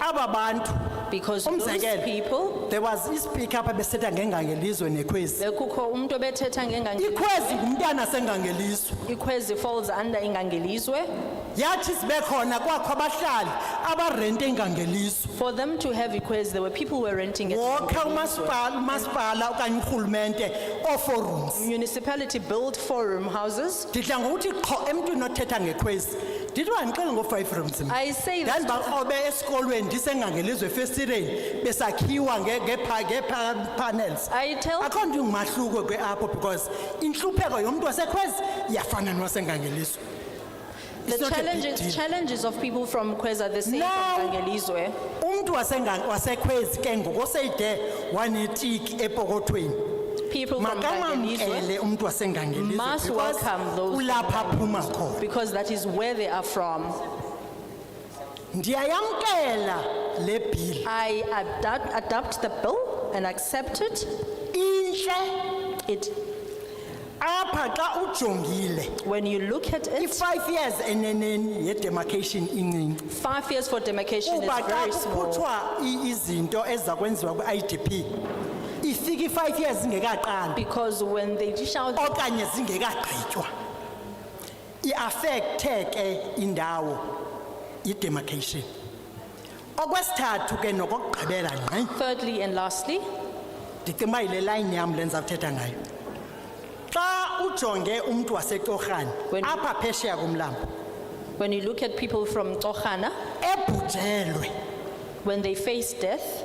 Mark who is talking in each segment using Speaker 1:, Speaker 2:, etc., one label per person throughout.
Speaker 1: aba bantu
Speaker 2: because those
Speaker 1: Umzekelo.
Speaker 2: people
Speaker 1: there was ispeaker apha besetha ngengangelizwe nekhwezi
Speaker 2: bekukho umuntu obethetha ngengange
Speaker 1: ikhwezi ngumntana sengangelizwe
Speaker 2: ikhwezi falls under ingangelizwe
Speaker 1: yathi sibe khona kwakho abahlali abarente ingangelizwe
Speaker 2: for them to have ikhwezi there were people who were renting it
Speaker 1: wokha umasipala umasipala okanye urhulumente ooforums
Speaker 2: municipality built four room houses
Speaker 1: ndidla ngokuthi qho emntwini othetha ngekhwezi ndithi bandixele ngoo-five rooms mna
Speaker 2: i say that
Speaker 1: ndandibakrobe esikolweni ndisengangelizwe efestireni besakhiwa nge- ngepa- ngepa-panels
Speaker 2: i tell
Speaker 1: akho nto ingumahluko kwe-apho because intlupheko yomntu wasekhwezi iyafana nowasengangelizwe
Speaker 2: the
Speaker 1: It's not a big
Speaker 2: challenges
Speaker 1: deal.
Speaker 2: challenges of people from Kwez are the same
Speaker 1: Now-
Speaker 2: from Ngangelizwe.
Speaker 1: umntu wasenga- wasekhwezi ke ngokoseyide wanetiki epokothweni
Speaker 2: People from Ngangelizwe
Speaker 1: makamamkele umntu wasengangelizwe
Speaker 2: Must
Speaker 1: because
Speaker 2: welcome those-
Speaker 1: kulapha aphuma khona
Speaker 2: because that is where they are from.
Speaker 1: ndiyayamkela le bhili
Speaker 2: I adapt, adapt the bill and accept it.
Speaker 1: intle
Speaker 2: It
Speaker 1: apha xa ujongile
Speaker 2: when you look at it,
Speaker 1: i-five years eneneni yedemarcation incinci
Speaker 2: five years for demarcation is
Speaker 1: kuba xa
Speaker 2: very small.
Speaker 1: kukhutshwa i- izinto eziza kwenziwa kwi-idp ifika i-five years zingekaqali
Speaker 2: Because when they dish out,
Speaker 1: okanye zingekagqitywa iafekthe ke indawo idemarcation okwesithathu ke nokokugqibela ngqi
Speaker 2: thirdly and lastly,
Speaker 1: ndicinga uba yile layini yam le ndizawuthetha ngayo xa ujonge umntu wasetorhane
Speaker 2: When-
Speaker 1: apha phesheya kumlambo
Speaker 2: when you look at people from Tochana,
Speaker 1: ebhujelwe
Speaker 2: when they face death,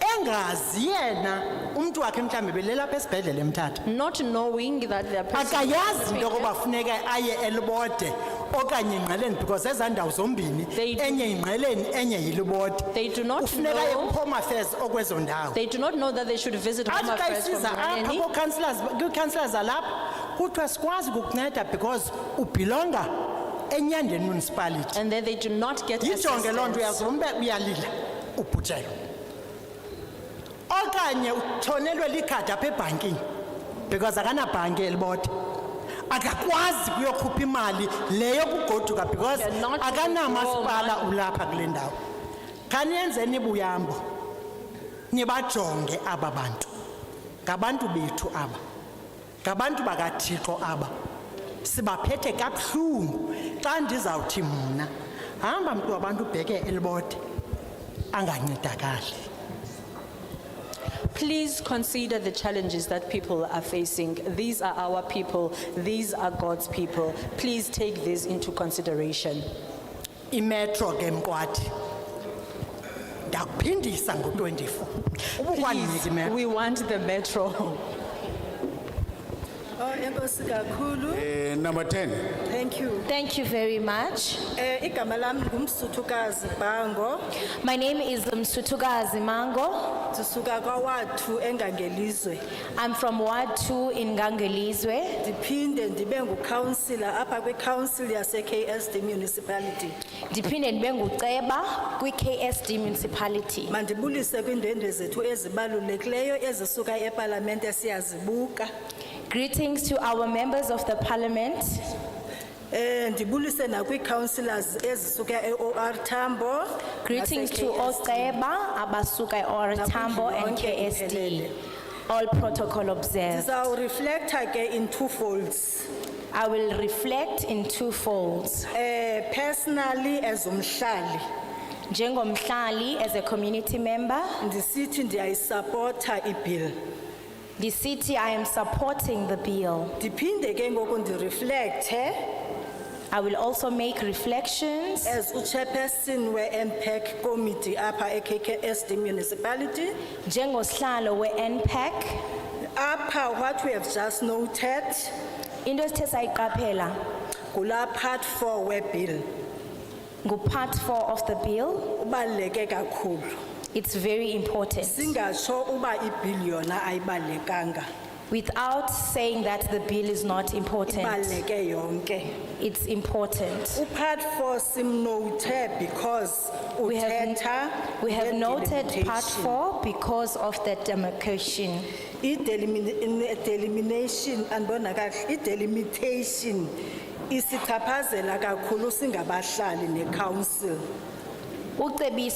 Speaker 1: engazi yena umntu wakhe mhlawumbi belelapha esibhedlele emthatha
Speaker 2: not knowing that their person
Speaker 1: akayazi into yokuba funeka aye elibode okanye ingqeleni because ezaa ndawo zombini
Speaker 2: They do-
Speaker 1: enye yingqeleni enye yilibode
Speaker 2: they do not
Speaker 1: ufuneka aye
Speaker 2: know.
Speaker 1: kuhome affairs okwezo ndawo
Speaker 2: They do not know that they should visit home
Speaker 1: athi xa
Speaker 2: affairs from E,
Speaker 1: isiza apha
Speaker 2: Mangeni.
Speaker 1: koocounselors kwii-councillors zalapha kuthiwa sikwazi ukukunceda because ubhilonga enyandeni municipality
Speaker 2: And then they do not get
Speaker 1: yijonge loo nto
Speaker 2: assistance.
Speaker 1: uyazumbe uyalila ubhujelwe okanye utshonelwe likhadi apha ebhankini because akanabhanki elibode akakwazi kuyokhupha imali le yokugoduka because
Speaker 2: They're not
Speaker 1: akanamasipala
Speaker 2: withdraw
Speaker 1: ulapha kule ndawo khaniyenzeni ibuyambo nibajonge aba bantu ngabantu bethu aba ngabantu bakathixo aba sibaphethe kabuhlungu xa ndizawuthi mna hamba mntu wabantu ubheke elibode angancedakali
Speaker 2: Please consider the challenges that people are facing. These are our people. These are God's people. Please take this into consideration.
Speaker 1: imetro ke mkwathi ndakuphindisa ngo-24 ubukwandinika
Speaker 2: Please,
Speaker 1: imetro
Speaker 2: we want the metro.
Speaker 3: Oh, enkosi kakhulu.
Speaker 4: Eh, number 10,
Speaker 3: Thank you.
Speaker 5: Thank you very much.
Speaker 3: Eh igama lami ngumsuthukazi Bhango,
Speaker 5: My name is Msutugazi Mango.
Speaker 3: sisuka kwaWathu engangelizwe.
Speaker 5: I'm from Ward 2 in Gangelizwe.
Speaker 3: Ndiphinde ndibe ngucounselor apha kwicouncil yase KSD municipality.
Speaker 5: Ndiphinde ndibe nguceba kwi-KSD municipality.
Speaker 3: Mandibulise kwiindwendwe zethu ezibalulekileyo ezisuka epalamente siyazibuka.
Speaker 5: Greetings to our members of the parliament.
Speaker 3: Eh ndibulise nakwii-councillors ezisuka e-OR Tambo.
Speaker 5: Greetings to
Speaker 3: nase-
Speaker 5: oceba abasuka Oratambo and KSD. All protocol observed.
Speaker 3: Ndizawureflecta ke in two folds.
Speaker 5: I will reflect in two folds.
Speaker 3: Eh personally as umhlali
Speaker 5: Njengomhlali as a community member,
Speaker 3: ndisithi ndiyayisapota ibill
Speaker 5: the city I am supporting the bill.
Speaker 3: ndiphinde ke ngoku ndireflecthe
Speaker 5: I will also make reflections
Speaker 3: as uchairperson we-mpac committee apha e-kksd municipality
Speaker 5: njengosihlalo we-NPAC.
Speaker 3: apha what we have just noted
Speaker 5: Into esithe sayiqaphela
Speaker 3: ngulaa part four webill
Speaker 5: ngu-part four of the bill.
Speaker 3: ubaluleke kakhulu
Speaker 5: It's very important.
Speaker 3: singatsho uba ibill yona ayibalulekanga
Speaker 5: Without saying that the bill is not important,
Speaker 3: ibaluleke yonke
Speaker 5: it's important.
Speaker 3: upart four simnothe because
Speaker 5: We have,
Speaker 3: uthetha
Speaker 5: we have noted part
Speaker 3: nge-delimitation.
Speaker 5: four because of the demarcation.
Speaker 3: i-delimination andibona kahle i-delimitation isichaphazela kakhulu singabahlali necouncil
Speaker 5: Ucebisi